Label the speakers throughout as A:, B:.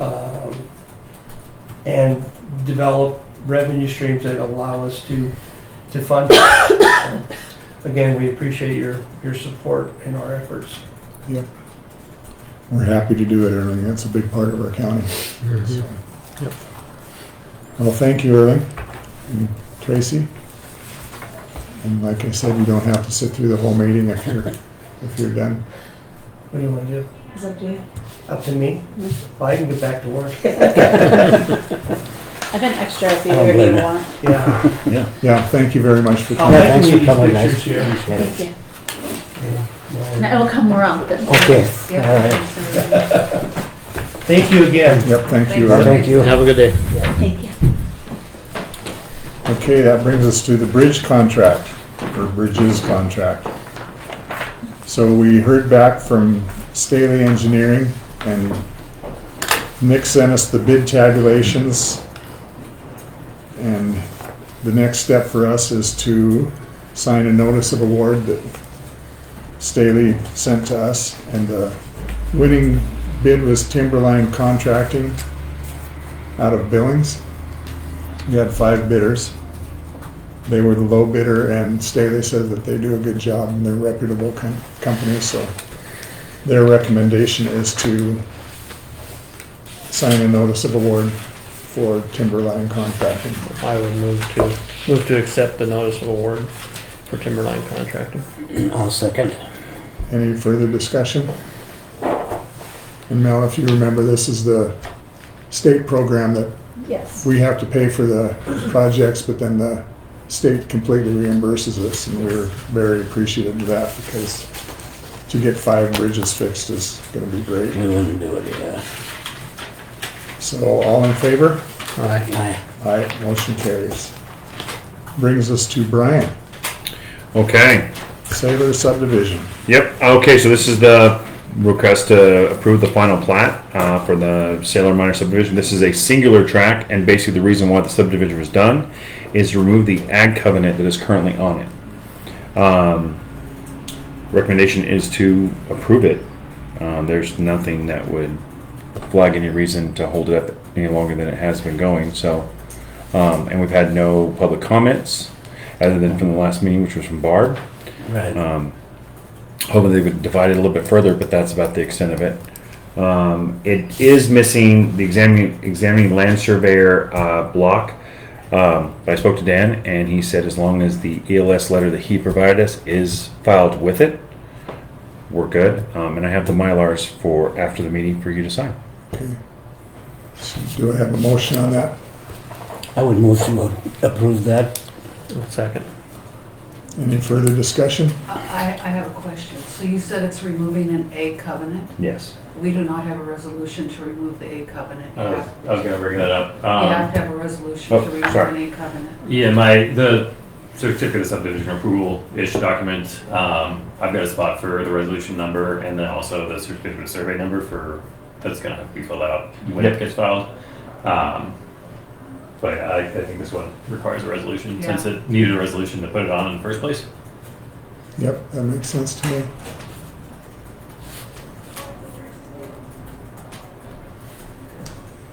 A: um, and develop revenue streams that allow us to, to fund. it. Again, we appreciate your, your support in our efforts.
B: Yep.
C: We're happy to do it, Erling. That's a big part of our county. So-
B: Yep.
C: Well, thank you, Erling. And Tracy. And like I said, you don't have to sit through the whole meeting if you're, if you're done.
A: What do you want to do?
D: It's up to you.
A: Up to me? Well, I can get back to work.
D: I've been extra if you
E: I don't
D: ever
E: blame
D: you
E: you.
D: want.
A: Yeah.
C: Yeah, Oh, thank you very much for
A: I'll
C: coming.
E: Yeah,
A: make
E: thanks
A: you
E: for
A: these
E: coming, guys.
A: pictures here.
D: Thank you. And
A: Yeah.
D: it'll come more often.
E: Okay,
D: Yeah.
E: all right.
A: Thank you again.
C: Yep, thank you,
E: Well,
C: Erling.
E: thank you.
B: Have a good day.
D: Thank you.
C: Okay, that brings us to the bridge contract, or bridges contract. So we heard back from Staley Engineering, and Nick sent us the bid tabulations. And the next step for us is to sign a notice of award that Staley sent to us. And the winning bid was Timberline Contracting out of Billings. We had five bidders. They were the low bidder, and Staley said that they do a good job and they're a reputable com- company, so their recommendation is to sign a notice of award for Timberline Contracting.
F: I would move to, move to accept the notice of award for Timberline Contracting.
E: I'll second.
C: Any further discussion? And Mel, if you remember, this is the state program that
D: Yes.
C: we have to pay for the projects, but then the state completely reimburses us, and we're very appreciative of that, because to get five bridges fixed is gonna be
E: We
C: great.
E: wouldn't do it, yeah.
C: So, all in favor?
F: Aye.
E: Aye.
C: Aye, motion carries. Brings us to Brian,
G: Okay,
C: Sailor subdivision.
G: yep, okay, so this is the request to approve the final plat, uh, for the Sailor Minor subdivision. This is a singular track, and basically the reason why the subdivision was done is to remove the ag covenant that is currently on it. Um, recommendation is to approve it. Um, there's nothing that would flag any reason to hold it up any longer than it has been going, so. Um, and we've had no public comments, other than from the last meeting, which was from Barb.
E: Right.
G: hoping they would divide it a little bit further, but that's about the extent of it. Um, it is missing the examining, examining land surveyor, uh, block. Um, but I spoke to Dan and he said as long as the ELS letter that he provided us is filed with it, we're good. Um, and I have the Mylars for after the meeting for you to sign.
C: So Do I have a motion on that?
E: I would move to approve that.
F: I'll Second.
C: Any further discussion?
H: I, I have a question. So you said it's removing an A covenant?
G: Yes.
H: We do not have a resolution to remove the A covenant. You
I: I was,
H: have
I: I was gonna bring that up.
H: you have
I: Uh, Um,
H: to have a resolution
G: Oh,
H: to remove an
G: sorry.
H: A covenant.
I: yeah, my, the certificate of subdivision approval-ish document, um, I've got a spot for the resolution number and then also the certificate of survey number for, that's gonna have to be filled out when it
G: Yep.
I: gets filed. Um, but I, I think this one requires a resolution, since
H: Yeah.
I: it needed a resolution to put it on in the first place.
C: Yep, that makes sense to me.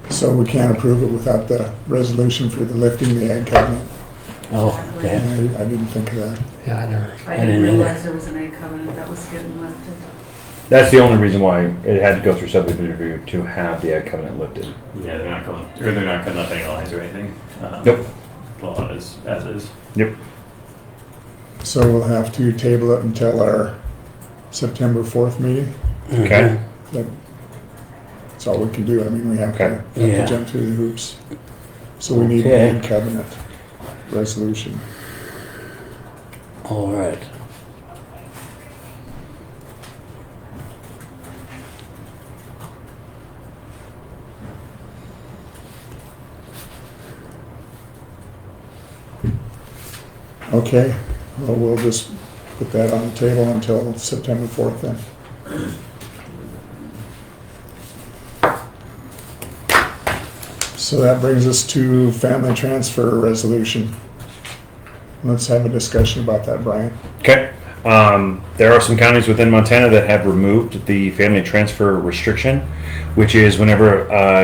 C: So we can't approve it without the resolution for the lifting the ag cabinet.
E: Oh, okay.
C: I I didn't think of that.
F: Yeah, I never.
E: didn't
H: I didn't
E: either.
H: realize there was an A covenant that was getting lifted.
G: That's the only reason why it had to go through subdivision review to have the ag covenant lifted.
I: Yeah, they're not going, or they're not cutting up any lines or anything. Um,
G: Nope.
I: The law is, as is.
G: Yep.
C: So we'll have to table it until our September 4th meeting.
G: Okay.
E: Mm-hmm.
C: That- That's all we can do. I mean, we have to
G: Okay.
C: have to
E: Yeah.
C: jump through the hoops. So we need the
E: Okay.
C: ag cabinet resolution.
E: All right.
C: Okay, well, we'll just put that on the table until September 4th then. So that brings us to family transfer resolution. Let's have a discussion about that, Brian.
G: Okay. Um, there are some counties within Montana that have removed the family transfer restriction, which is whenever uh,